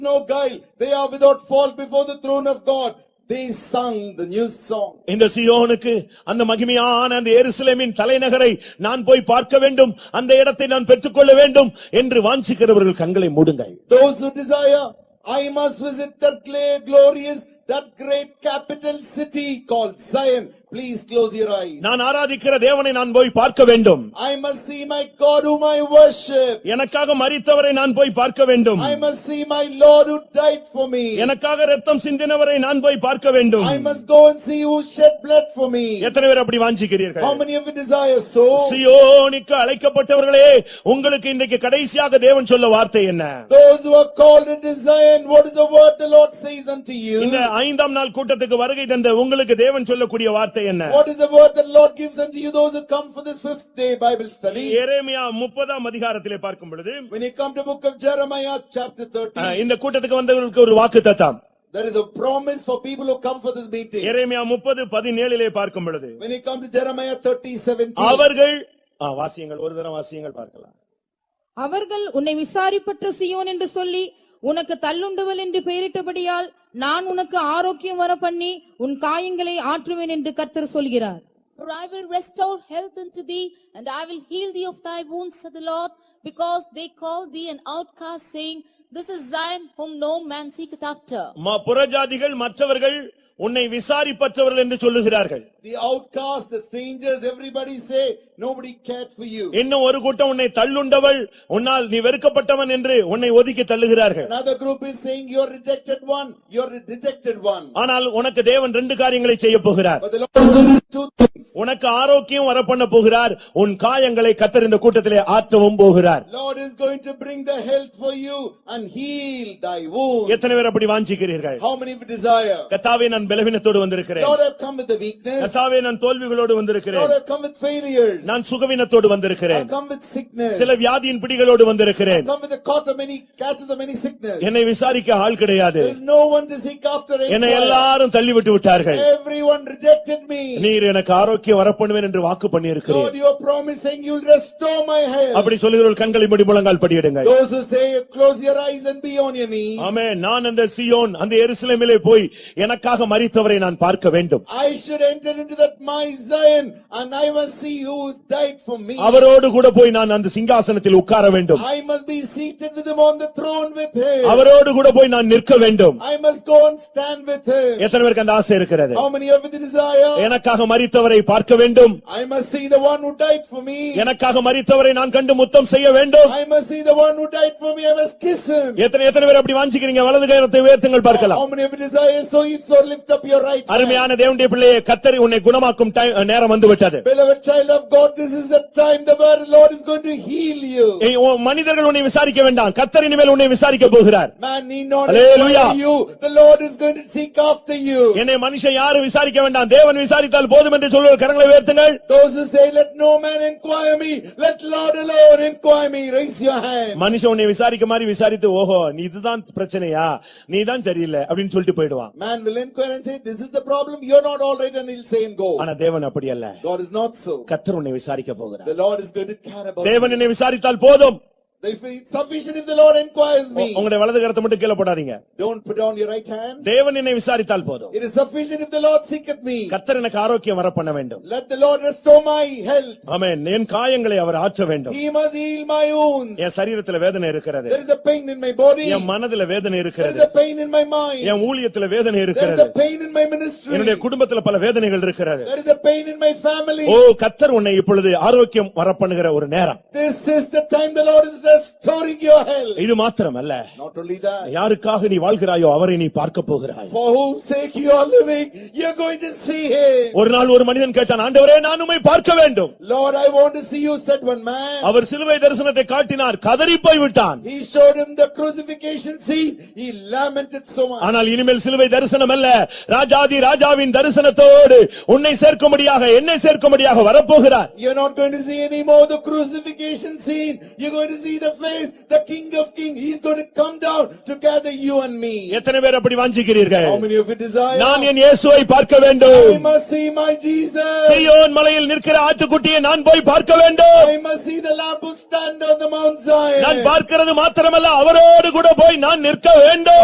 no guile. They are without fault before the throne of God. They sung the new song. இந்த சியோனுக்கு அந்த மகிமையான அந்த எருசலேமின் தலைநகரை நான் போய் பார்க்க வேண்டும் அந்த இடத்தை நான் பெற்றுக்கொள்ள வேண்டும் என்று வாஞ்சிக்கிறவர்கள் கண்களை மூடுங்கள் Those who desire, I must visit that gla- glorious, that great capital city called Zion. Please close your eyes. நான் ஆராதிக்கிற தேவனை நான் போய் பார்க்க வேண்டும் I must see my God whom I worship. எனக்காக மரித்தவரை நான் போய் பார்க்க வேண்டும் I must see my Lord who died for me. எனக்காக ரத்தம் சிந்தினவரை நான் போய் பார்க்க வேண்டும் I must go and see who shed blood for me. எத்தனை பேர் அப்படி How வாஞ்சிக்கிறீர்கள் many of you desire so? சியோனுக்கு அழைக்கப்பட்டவர்களே உங்களுக்கு இன்றைக்கு கடைசியாக தேவன் சொல்ல வார்த்தை என்ன Those who are called and desire, and what is the word the Lord says unto இந்த you? ஐந்தாம் நாள் கூட்டத்துக்கு வருகை தந்த உங்களுக்கு தேவன் சொல்லக்கூடிய வார்த்தை என்ன What is the word that Lord gives unto you, those who come for this fifth day Bible study? எரேமியா முப்பதாம் அதிகாரத்திலே பார்க்கும் பொழுது When you come to book of Jeremiah, chapter அஹ், 13, இந்த கூட்டத்துக்கு வந்தவர்களுக்கு ஒரு வாக்கு தத்தம் there is a promise for people who come for this meeting. எரேமியா முப்பது பதினேழிலே பார்க்கும் பொழுது When you come to Jeremiah 30, 17, அவர்கள் ஆ, வாசியங்கள் ஒரு தரம் வாசியங்கள் பார்க்கலாம் அவர்கள் உன்னை விசாரிப்பற்ற சியோன் என்று சொல்லி உனக்கு தள்ளுண்டவள் என்று பெயரிட்டபடியால் நான் உனக்கு ஆரோக்கியம் வர பண்ணி உன் காயங்களை ஆற்றுவேன் என்று கர்த்தர் சொல்கிறார் For I will restore health unto thee, and I will heal thee of thy wounds, said the Lord, because they call thee an outcast, saying, This is Zion, whom no man seeketh after. ம- புறஜாதிகள் மற்றவர்கள் உன்னை விசாரிப்பற்றவர்கள் என்று சொல்லுகிறார்கள் the outcasts, the strangers, everybody say, nobody cared for you. இன்னும் ஒரு கூட்டம் உன்னை தள்ளுண்டவள் உன்னால் நீ வெறுக்கப்பட்டவன் என்று உன்னை ஒதுக்கி தள்ளுகிறார்கள் Another group is saying, you're rejected one, you're a rejected one. ஆனால் உனக்கு தேவன் ரெண்டு காரியங்களை செய்ய போகிறார் But the Lord is going to do two things. உனக்கு ஆரோக்கியம் வரப்பண்ண போகிறார் உன் காயங்களை கத்தர் இந்த கூட்டத்திலே ஆற்றவும் போகிறார் Lord is going to bring the health for you and heal thy wounds. எத்தனை பேர் அப்படி வாஞ்சிக்கிறீர்கள் How many of you desire? கத்தாவே நான் பலவீனத்தோடு வந்திருக்கிறேன் Lord, I've come with the weakness. கத்தாவே நான் தோல்விகளோடு வந்திருக்கிறேன் Lord, I've come with failures. நான் சுகவீனத்தோடு வந்திருக்கிறேன் I've come with sickness. சில வியாதியின் பிடிகளோடு வந்திருக்கிறேன் Come with the cot of many catches of many sickness. என்னை விசாரிக்க ஆள் கிடையாது There is no one to seek after. and என்னை inquire. எல்லாரும் தள்ளிவிட்டு விட்டார்கள் Everyone rejected me. நீர் எனக்கு ஆரோக்கியம் வரப்பண்ணுவேன் என்று வாக்கு பண்ணியிருக்கிறேன் Lord, you are promising you'll restore my health. அப்படி சொல்லுகிறவர்கள் கண்களை மூடி முழங்கால் படியிடுங்க Those who say, close your eyes and be on your knees. ஆமே நான் அந்த சியோன் அந்த எருசலேமிலே போய் எனக்காக மரித்தவரை நான் பார்க்க வேண்டும் I should enter into that my Zion and I must see who's died for me. அவரோடு கூட போய் நான் அந்த சிங்காசனத்தில் உட்கார வேண்டும் I must be seated with him on the throne with him. அவரோடு கூட போய் நான் நிற்க வேண்டும் I must go and stand with him. எத்தனை பேருக்கு அந்த ஆசை இருக்கிறது How many of you desire? எனக்காக மரித்தவரை பார்க்க வேண்டும் I must see the one who died for me. எனக்காக மரித்தவரை நான் கண்டு முத்தம் செய்ய வேண்டும் I must see the one who died for me. I must kiss him. எத்தனை எத்தனை பேர் அப்படி வாஞ்சிக்கிறீங்க வலது கரத்தை உயர்த்துங்கள் பார்க்கலாம் How many of you desire? So if so, lift up your right hand. அருமையான தேவனுடைய பிள்ளையை கத்தரி உன்னை குணமாக்கும் time- நேரம் வந்து விட்டது Beloved child of God, this is the time the word of the Lord is going to heal you. ஏய், உன் மனிதர்கள் உன்னை விசாரிக்க வேண்டாம் கத்தர் இனிமேல் உன்னை விசாரிக்க போகிறார் Man need not Hallelujah. inquire you. The Lord is going to seek after you. என்னை மனுஷன் யாரும் விசாரிக்க வேண்டாம் தேவன் விசாரித்தால் போதும் என்று சொல்லுகிற கரங்களை உயர்த்துங்கள் Those who say, let no man inquire me, let Lord alone inquire me, raise your hand. மனுஷன் உன்னை விசாரிக்க மாதிரி விசாரித்து ஓஹோ நீ இதுதான் பிரச்சனையா நீ தான் சரியில்லை அப்படின்னு சொல்லிட்டு போயிடுவான் Man will inquire and say, this is the problem, you're not all right and he'll say and go. ஆனா தேவன் அப்படி அல்ல God is not so. கத்தர் உன்னை விசாரிக்க The போகிறார் Lord is going to care about me. தேவன் என்னை விசாரித்தால் போதும் If it's sufficient if the Lord inquires உ- me, உங்களுடைய வலது கரத்தை மட்டும் கீழே போடாதீங்க don't put down your right hand. தேவன் என்னை விசாரித்தால் போதும் It is sufficient if the Lord seeketh me. கத்தர் எனக்கு ஆரோக்கியம் வர பண்ண வேண்டும் Let the Lord restore my health. ஆமென் என் காயங்களை அவர் ஆற்ற வேண்டும் He must heal my wounds. என் சரீரத்துல வேதனை இருக்கிறது There is a pain in my body. என் மனதுல வேதனை There is இருக்கிறது a pain in my mind. என் ஊழியத்துல வேதனை There is இருக்கிறது a pain in my ministry. என்னுடைய குடும்பத்துல பல வேதனைகள் இருக்கிறது There is a pain in my family. ஓ கத்தர் உன்னை இப்பொழுது ஆரோக்கியம் வர பண்ணுகிற ஒரு நேரம் This is the time the Lord is restoring your health. இது மாத்திரம் அல்ல Not only that, யாருக்காக நீ வாழ்கிறாயோ அவரை நீ பார்க்க போகிறாய் for whose sake you are living, you're going to see Him. ஒரு நாள் ஒரு மனிதன் கேட்டான் ஆண்டவரே நான் உம்மை பார்க்க வேண்டும் Lord, I want to see you, said one man. அவர் சிலுவை தரிசனத்தை காட்டினார் கதறி போய் விட்டான் He showed him the crucifixion scene. He lamented so much. ஆனால் இனிமேல் சிலுவை தரிசனம் அல்ல ராஜாதி ராஜாவின் தரிசனத்தோடு உன்னை சேர்க்கும்படியாக என்னை சேர்க்கும்படியாக வரப்போகிறார் You're not going to see anymore the crucifixion scene. You're going to see the face, the King of Kings. He's going to come down to gather you and me. எத்தனை பேர் அப்படி வாஞ்சிக்கிறீர்கள் How many of you desire? நான் என் இயேசுவை பார்க்க I வேண்டும் must see my Jesus. சீயோன் மலையில் நிற்கிற ஆட்டுக்குட்டியை நான் போய் பார்க்க வேண்டும் I must see the Lamb who stand on the Mount நான் Zion. பார்க்கிறது மாத்திரமல்ல அவரோடு கூட போய் நான் நிற்க வேண்டும்